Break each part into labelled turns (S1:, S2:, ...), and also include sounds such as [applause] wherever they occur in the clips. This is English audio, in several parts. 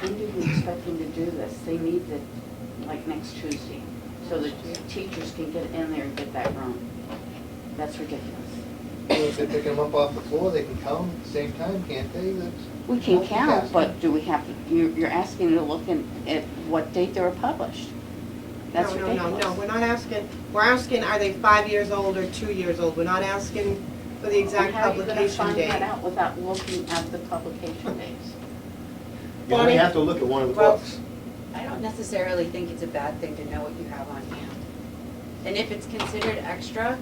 S1: When do we expect them to do this? They need it like next Tuesday, so the teachers can get in there and get that run. That's ridiculous.
S2: So if they pick them up off the floor, they can count at the same time, can't they? That's-
S1: We can
S2: multitasking.
S1: count, but do we have, to? you're, you're asking to look in, at what date they were published? That's
S3: No,
S1: ridiculous.
S3: No, no, no, we're not asking, we're asking, are they five years old or two years old? We're not asking for the exact
S1: And
S3: publication
S1: how are you gonna find that
S3: date.
S1: out without looking at the publication dates?
S2: You only have to look at one of the
S3: Well-
S2: books.
S4: I don't necessarily think it's a bad thing to know what you have on hand. And if it's considered extra,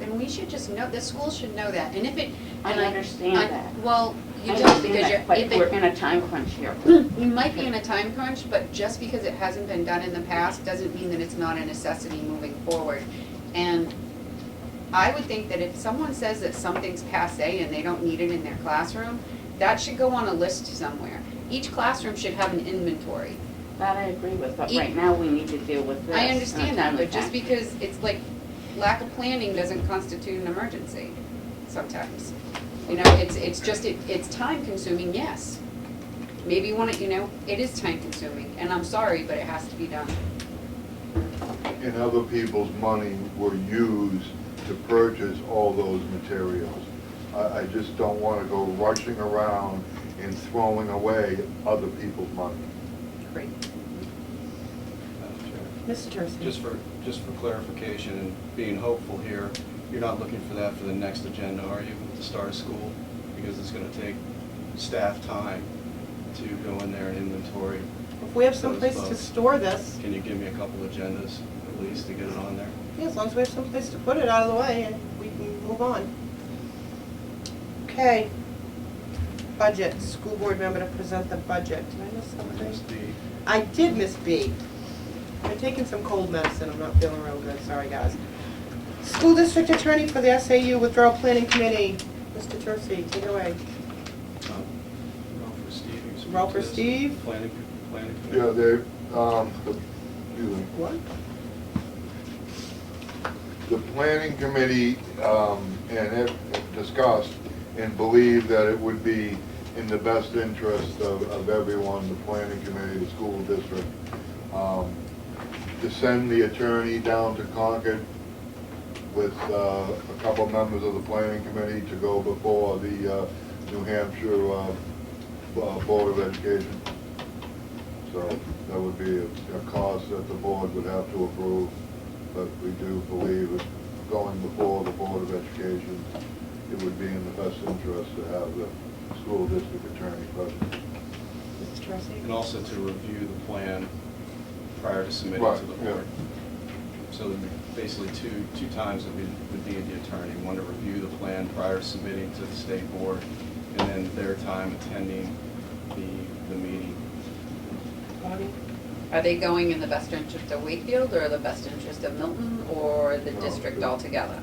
S4: then we should just know, the school should know that. And if it,
S1: I
S4: and I.
S1: understand
S4: I-
S1: that.
S4: Well, you
S1: I
S4: don't,
S1: understand
S4: because
S1: that,
S4: you're,
S1: But
S4: if
S1: we're
S4: it,
S1: in a time crunch here.
S4: [clears throat] we might be in a time crunch, but just because it hasn't been done in the past doesn't mean that it's not a necessity moving forward. And I would think that if someone says that something's passe and they don't need it in their classroom, that should go on a list somewhere. Each classroom should have an inventory.
S1: That I agree with, but
S4: E-
S1: right now we need to deal with this.
S4: I
S1: in a
S4: understand that,
S1: timely
S4: but just
S1: fashion.
S4: because it's like, lack of planning doesn't constitute an emergency sometimes. You know, it's, it's just, it, it's time consuming, yes. Maybe you wanna, you know, it is time consuming, and I'm sorry, but it has to be done.
S5: And other people's money were used to purchase all those materials. I, I just don't want to go rushing around and throwing away other people's money.
S4: Great.
S3: Mr. Tursi,
S6: Just for, just for clarification and being hopeful here, you're not looking for that for the next agenda, are you, at the start of school? Because it's gonna take staff time to go in there and inventory.
S3: if we have someplace to
S6: those books.
S3: store this,
S6: Can you give me a couple agendas at least to get it on there?
S3: yeah, as long as we have someplace to put it out of the way and we can move on. Okay. Budget, school board member to present the budget. Did I miss something?
S6: There's the-
S3: I did miss B. I'm taking some cold medicine, I'm not feeling real good, sorry guys. School District Attorney for the SAU Withdrawal Planning Committee, Mr. Tursi, take it away.
S6: um, Ralph or Steve? who's-
S3: Ralph or Steve?
S6: Planning, planning. committee.
S5: Yeah, they, um, the- excuse me.
S3: What?
S5: the planning committee, um, and it discussed and believed that it would be in the best interest of, of everyone, the planning committee, the school district, um, to send the attorney down to Concord with, uh, a couple members of the planning committee to go before the, uh, New Hampshire, uh, uh, Board of Education. So that would be a a cost that the board would have to approve, but we do believe that going before the Board of Education, it would be in the best interest to have the school district attorney present.
S3: Mr. Tursi?
S6: And also to review the plan prior to submitting
S5: Right,
S6: to the
S5: yeah.
S6: board. So there'd be basically two, two times that we would need the attorney, one to review the plan prior to submitting to the state board, and then their time attending the, the meeting.
S3: Bonnie?
S4: Are they going in the best interest of Wakefield, or the best interest of Milton, or the
S5: No,
S4: district
S5: good.
S4: altogether?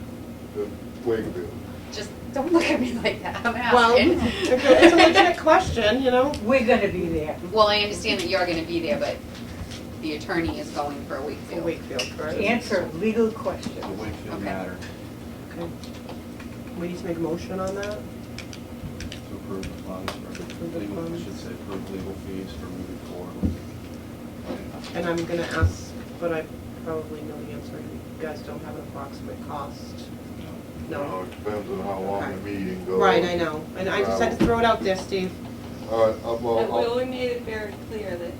S5: The Wakefield.
S4: Just don't [laughs] look at me like that, I'm
S3: Well,
S4: asking. [laughs]
S3: it's a legit question, you know?
S7: We're gonna be there.
S4: Well, I understand that you're gonna be there, but the attorney is going for
S3: For
S4: Wakefield.
S3: Wakefield, correct?
S7: Answer legal
S6: The
S7: questions.
S6: Wakefield
S4: Okay.
S6: matter
S3: Okay. We need to make a motion on that?
S6: to approve the funds,
S3: Approve
S6: for
S3: the
S6: legal, I
S3: funds.
S6: should say, approve legal fees for moving forward.
S3: And I'm gonna ask, but I probably know the answer, you guys don't have an approximate cost.
S5: Now,
S3: No.
S5: It depends on how long the meeting goes.
S3: Right, I know, and I just had to throw it out there, Steve.
S5: All right, uh, well,
S8: But we
S5: I'll-
S8: only made it very clear that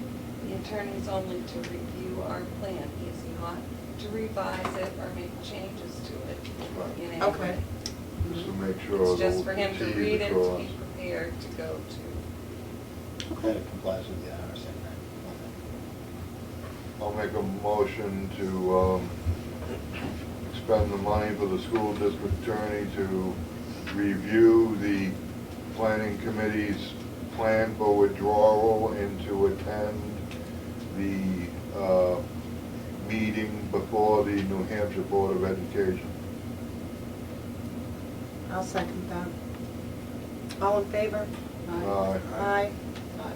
S8: the attorney's only to review our plan. He is not to revise it or make changes to it in any
S3: Okay.
S8: way.
S5: just to make sure.
S8: It's just
S5: the
S8: for him to
S5: T's
S8: read
S5: are
S8: it, to
S5: crossed.
S8: be prepared to go to.
S9: That it complies with the IRS and
S5: I'll make a motion to um, expend the money for the school district attorney to review the planning committee's plan for withdrawal and to attend the uh, meeting before the New Hampshire Board of Education.
S3: I'll second that. All in favor?
S5: Aye.
S3: Aye.
S9: that. Aye.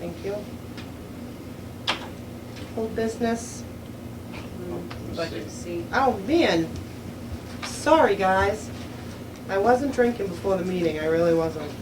S3: Thank you. Old business, Mm-hmm.
S4: Budget C.
S3: oh man, sorry guys. I wasn't drinking before the meeting, I really wasn't.